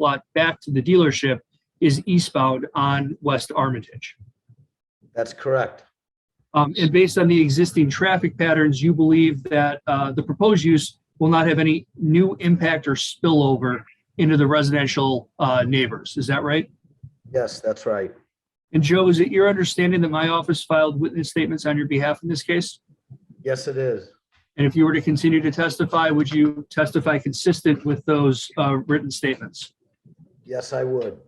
lot back to the dealership is eastbound on West Armitage. That's correct. Um, and based on the existing traffic patterns, you believe that, uh, the proposed use will not have any new impact or spillover into the residential, uh, neighbors. Is that right? Yes, that's right. And Joe, is it your understanding that my office filed witness statements on your behalf in this case? Yes, it is. And if you were to continue to testify, would you testify consistent with those, uh, written statements? Yes, I would.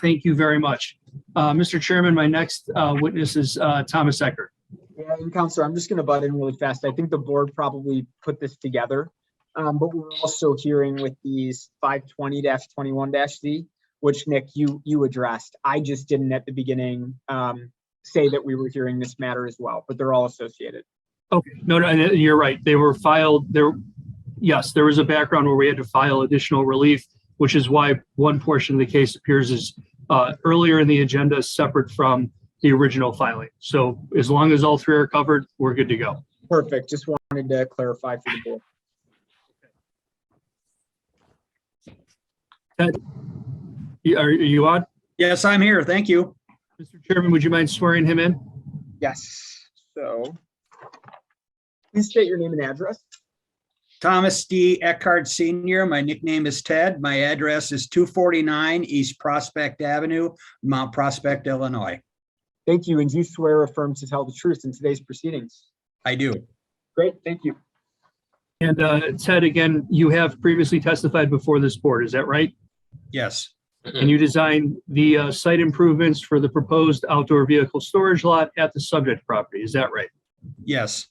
Thank you very much. Uh, Mr. Chairman, my next uh, witness is uh, Thomas Eckert. Yeah, and Counselor, I'm just gonna butt in really fast. I think the board probably put this together. Um, but we're also hearing with these five twenty twenty-one Z, which Nick, you, you addressed. I just didn't at the beginning, um, say that we were hearing this matter as well, but they're all associated. Okay, no, no, and you're right. They were filed, there, yes, there was a background where we had to file additional relief, which is why one portion of the case appears as uh, earlier in the agenda, separate from the original filing. So as long as all three are covered, we're good to go. Perfect. Just wanted to clarify for the board. Y- Are are you on? Yes, I'm here. Thank you. Mr. Chairman, would you mind swearing him in? Yes, so. Please state your name and address. Thomas D. Eckhart Senior. My nickname is Ted. My address is two forty-nine East Prospect Avenue, Mount Prospect, Illinois. Thank you, and do you swear or affirm to tell the truth in today's proceedings? I do. Great, thank you. And uh, Ted, again, you have previously testified before this board, is that right? Yes, And you designed the uh, site improvements for the proposed outdoor vehicle storage lot at the subject property, is that right? yes,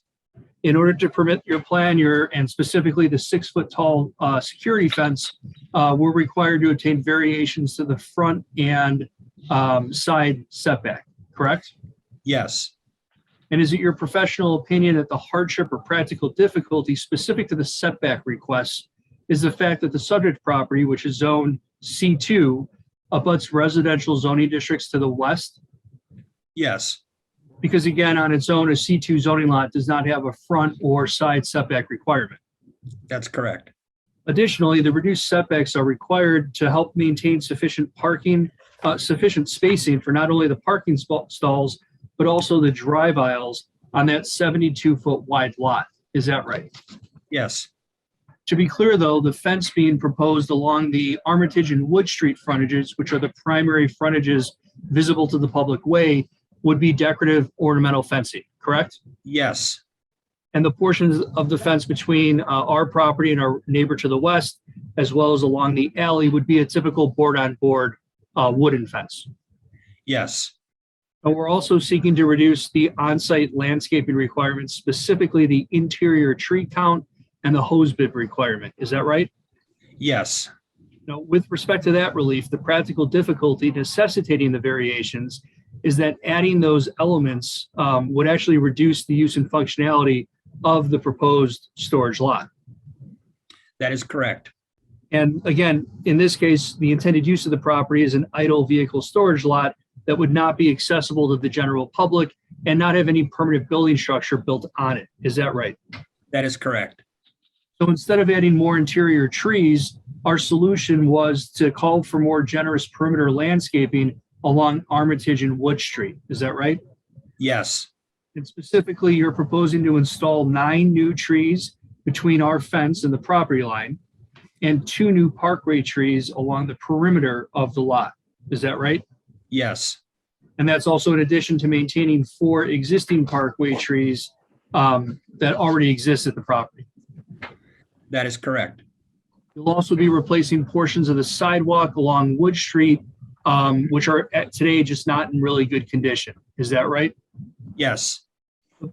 in order to permit your plan, your, and specifically the six-foot-tall uh, security fence, uh, we're required to obtain variations to the front and um, side setback, correct? yes, And is it your professional opinion that the hardship or practical difficulty specific to the setback request is the fact that the subject property, which is zone C2, abuts residential zoning districts to the west? yes, Because again, on its own, a C2 zoning lot does not have a front or side setback requirement. that's correct. Additionally, the reduced setbacks are required to help maintain sufficient parking, uh, sufficient spacing for not only the parking spa- stalls, but also the drive aisles on that 72-foot wide lot. Is that right? Yes, To be clear, though, the fence being proposed along the Armitage and Wood Street frontages, which are the primary frontages visible to the public way, would be decorative ornamental fencing, correct? yes, and the portions of the fence between uh, our property and our neighbor to the west, as well as along the alley, would be a typical board-on-board uh, wooden fence. yes, And we're also seeking to reduce the on-site landscaping requirements, specifically the interior tree count and the hose bib requirement. Is that right? yes, Now, with respect to that relief, the practical difficulty necessitating the variations is that adding those elements um, would actually reduce the use and functionality of the proposed storage lot. that is correct. And again, in this case, the intended use of the property is an idle vehicle storage lot that would not be accessible to the general public and not have any permanent building structure built on it. Is that right? That is correct. So instead of adding more interior trees, our solution was to call for more generous perimeter landscaping along Armitage and Wood Street. Is that right? Yes, And specifically, you're proposing to install nine new trees between our fence and the property line and two new parkway trees along the perimeter of the lot. Is that right? yes, And that's also in addition to maintaining four existing parkway trees um, that already exist at the property. that is correct. You'll also be replacing portions of the sidewalk along Wood Street, um, which are at today just not in really good condition. Is that right? Yes,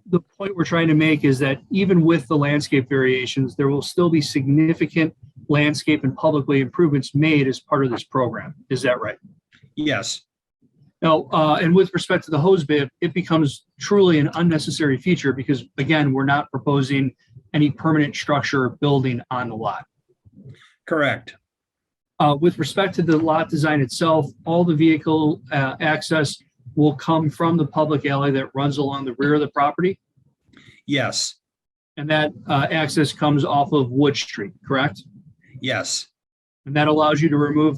the point we're trying to make is that even with the landscape variations, there will still be significant landscape and publicly improvements made as part of this program. Is that right? yes, Now, uh, and with respect to the hose bib, it becomes truly an unnecessary feature because again, we're not proposing any permanent structure or building on the lot. correct. Uh, with respect to the lot design itself, all the vehicle, uh, access will come from the public alley that runs along the rear of the property. Yes, And that uh, access comes off of Wood Street, correct? yes. And that allows you to remove